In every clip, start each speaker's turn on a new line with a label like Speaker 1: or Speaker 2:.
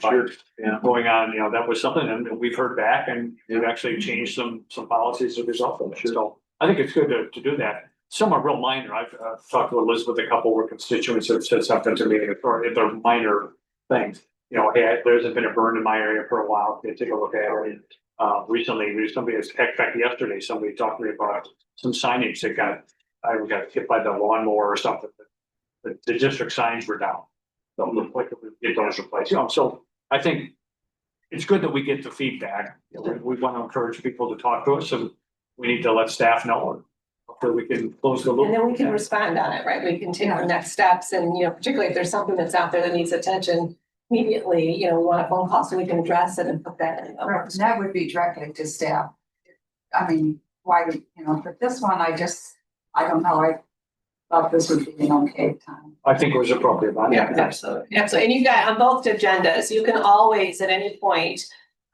Speaker 1: Sure. Yeah.
Speaker 2: going on, you know, that was something and we've heard back and we've actually changed some, some policies as a result of it.
Speaker 1: Sure.
Speaker 2: So I think it's good to, to do that. Some are real minor. I've uh, talked to Elizabeth, a couple of her constituents that have said something to me, or if they're minor things. You know, hey, I- there hasn't been a burn in my area for a while. Can you take a look at it? Uh, recently, there's somebody, in fact, yesterday, somebody talked to me about some signage that got, I got hit by the lawnmower or something. The, the district signs were down. So look like it was replaced, you know, so I think it's good that we get the feedback. We, we want to encourage people to talk to us and we need to let staff know. Hopefully we can close the loop.
Speaker 3: And then we can respond on it, right? We can take the next steps and, you know, particularly if there's something that's out there that needs attention immediately, you know, we want a phone call so we can address it and put that in. the
Speaker 4: Right,
Speaker 3: works.
Speaker 4: and that would be directly to staff. I mean, why, would you know, but this one, I just, I don't know, I thought this would be an okay time.
Speaker 2: I think it was appropriate. I-
Speaker 3: Absolutely. Absolutely. And you've got on both agendas, you can always at any point,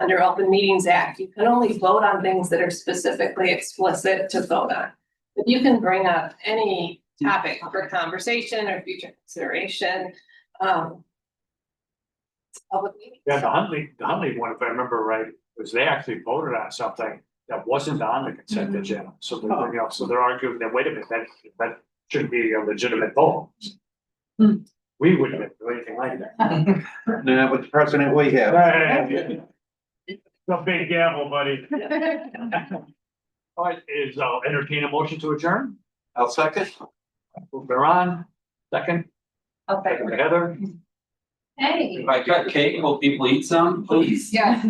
Speaker 3: under Open Meetings Act, you can only vote on things that are specifically explicit to vote on. But you can bring up any topic for conversation or future consideration. um, Public meeting.
Speaker 2: Yeah, the Huntley, the Huntley one, if I remember right, was they actually voted on something that wasn't on the consent
Speaker 3: Mhm.
Speaker 2: agenda. So they're, you know, so they're arguing that, wait a minute, that, that shouldn't be a legitimate vote.
Speaker 4: Hmm.
Speaker 2: We wouldn't do anything like that.
Speaker 1: Not with the president we have.
Speaker 2: The big gamble, buddy. All right, is, uh, entertain a motion to adjourn?
Speaker 1: I'll second.
Speaker 2: Move Baron, second,
Speaker 4: Okay.
Speaker 2: second Heather.
Speaker 5: If I cut cake, will people eat some, please?
Speaker 4: Yeah.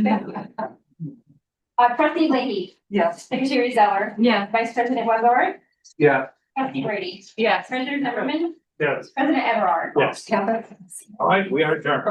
Speaker 6: Uh, trustee Leahy,
Speaker 4: Yes.
Speaker 6: secretary Zeller,
Speaker 7: Yeah.
Speaker 6: vice president Wazor,
Speaker 1: Yeah.
Speaker 6: trustee Brady,
Speaker 7: Yes.
Speaker 6: treasurer Zimmerman,
Speaker 2: Yes.
Speaker 6: president Everard.
Speaker 2: Yes,
Speaker 4: Kevin?
Speaker 2: all right, we are adjourned.